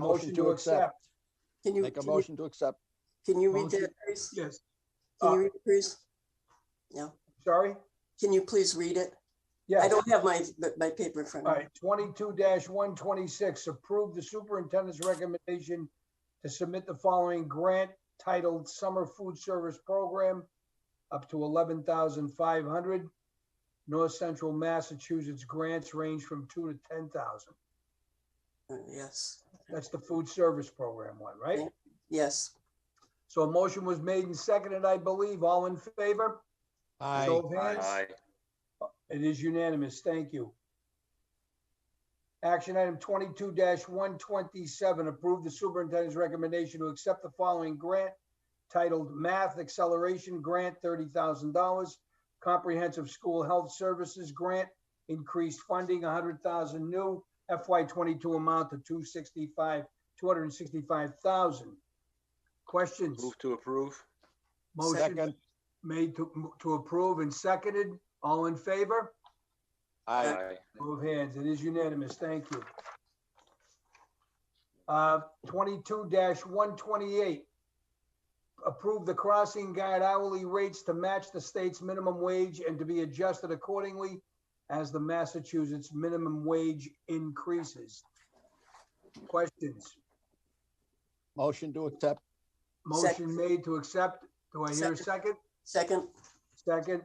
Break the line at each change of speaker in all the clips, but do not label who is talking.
motion to accept.
Can you,
Make a
can you-
motion to accept.
can you read
Motion.
that, please?
Yes,
Can
Uh,
you read it, please? No,
sorry?
can you please read it? I
Yes, all
don't have my, my paper in front of me.
right, twenty-two one twenty-six, approve the superintendent's recommendation to submit the following grant titled Summer Food Service Program up to eleven thousand five hundred. North Central Massachusetts grants range from two to ten thousand.
Uh, Yes,
That's the food service program one, right?
Yeah. yes.
So a motion was made and seconded, I believe. All in favor?
Aye.
Show of hands.
Aye.
It is unanimous. Thank you. Action item twenty-two one twenty-seven, approve the superintendent's recommendation to accept the following grant titled Math Acceleration Grant, thirty thousand dollars. Comprehensive School Health Services Grant, increased funding, hundred thousand new FY twenty-two amount to two sixty-five, two hundred and sixty-five thousand. Questions?
Move to approve.
Motion
Second.
made to, to approve and seconded. All in favor?
Aye.
Move hands. It is unanimous. Thank you. Uh, twenty-two one twenty-eight. Approve the crossing guard hourly rates to match the state's minimum wage and to be adjusted accordingly as the Massachusetts minimum wage increases. Questions?
Motion to accept.
Motion made to accept. Do I hear a
Second.
second?
Second,
Second.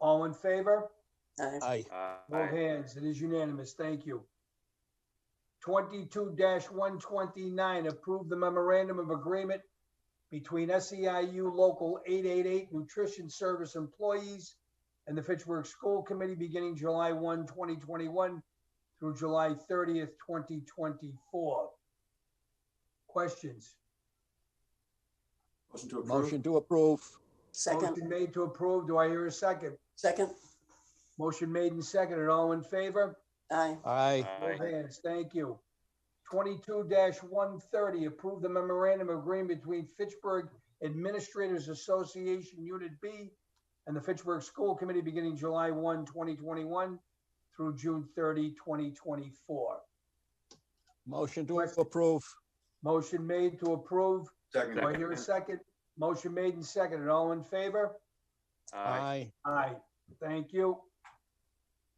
All in favor?
Aye.
Aye.
No
Aye.
hands. It is unanimous. Thank you. Twenty-two one twenty-nine, approve the memorandum of agreement between SEIU Local eight eight eight Nutrition Service Employees and the Fitchburg School Committee beginning July 1, 2021, through July thirtieth, twenty twenty-four. Questions?
Motion to approve.
Motion to approve.
second,
Motion made to approve. Do I hear a second?
second,
Motion made and seconded. All in favor?
aye,
Aye.
Both
Aye.
hands, thank you. Twenty-two one thirty, approve the memorandum of agreement between Fitchburg Administrators Association Unit B and the Fitchburg School Committee beginning July 1, 2021, through June 30, 2024.
Motion to approve.
Motion made to approve. Do I
Second.
hear a second? Motion made and seconded. All in favor?
Aye.
Aye.
Aye, thank you.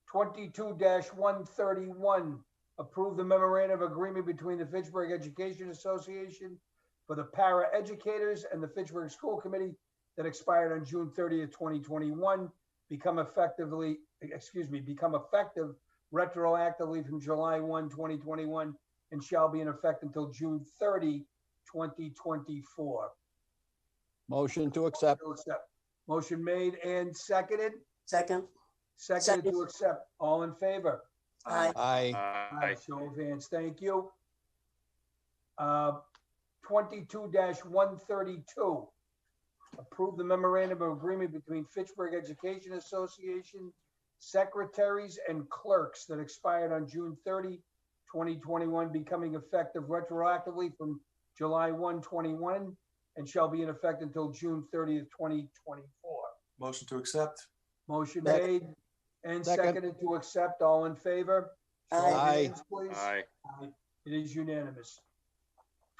Twenty-two one thirty-one, approve the memorandum of agreement between the Fitchburg Education Association for the para educators and the Fitchburg School Committee that expired on June thirtieth, twenty twenty-one, become effectively, excuse me, become effective retroactively from July 1, 2021, and shall be in effect until June 30, 2024.
Motion to accept.
We'll accept. Motion made and seconded.
second,
Seconded to accept. All in favor?
aye,
Aye.
Aye.
Show of hands. Thank you. Uh, Twenty-two one thirty-two. Approve the memorandum of agreement between Fitchburg Education Association secretaries and clerks that expired on June 30, 2021, becoming effective retroactively from July 1, 21, and shall be in effect until June thirtieth, twenty twenty-four.
Motion to accept.
Motion
Sec-
made and
Second.
seconded to accept. All in favor? Show of
Aye.
hands, Please.
Aye.
It is unanimous.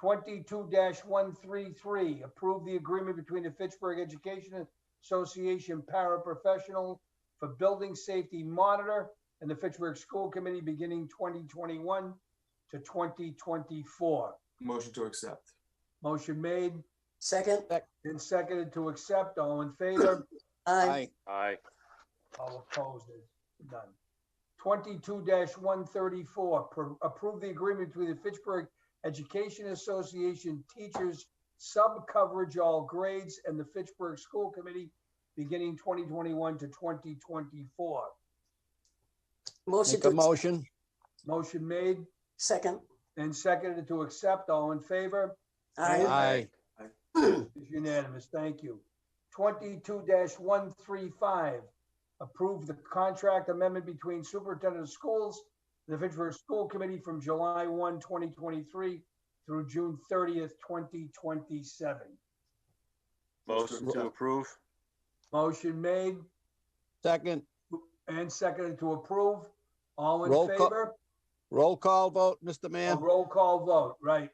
Twenty-two one three three, approve the agreement between the Fitchburg Education Association paraprofessional for building safety monitor and the Fitchburg School Committee beginning twenty twenty-one to twenty twenty-four.
Motion to accept.
Motion made
second,
and seconded to accept. All in favor?
Aye.
aye,
Aye.
All opposed, it's done. Twenty-two one thirty-four, approve the agreement between the Fitchburg Education Association Teachers Sub-Coverage All Grades and the Fitchburg School Committee beginning twenty twenty-one to twenty twenty-four.
motion
Make a
to,
motion.
Motion made
second,
and seconded to accept. All in favor?
aye,
Aye.
It's unanimous, thank you. Twenty-two one three five, approve the contract amendment between superintendent of schools and the Fitchburg School Committee from July 1, 2023, through June thirtieth, twenty twenty-seven.
Motion to approve.
Motion made
Second.
and seconded to approve. All
Roll
in
call-
favor?
Roll call vote, Mr.
A
Mayor?
roll call vote, right?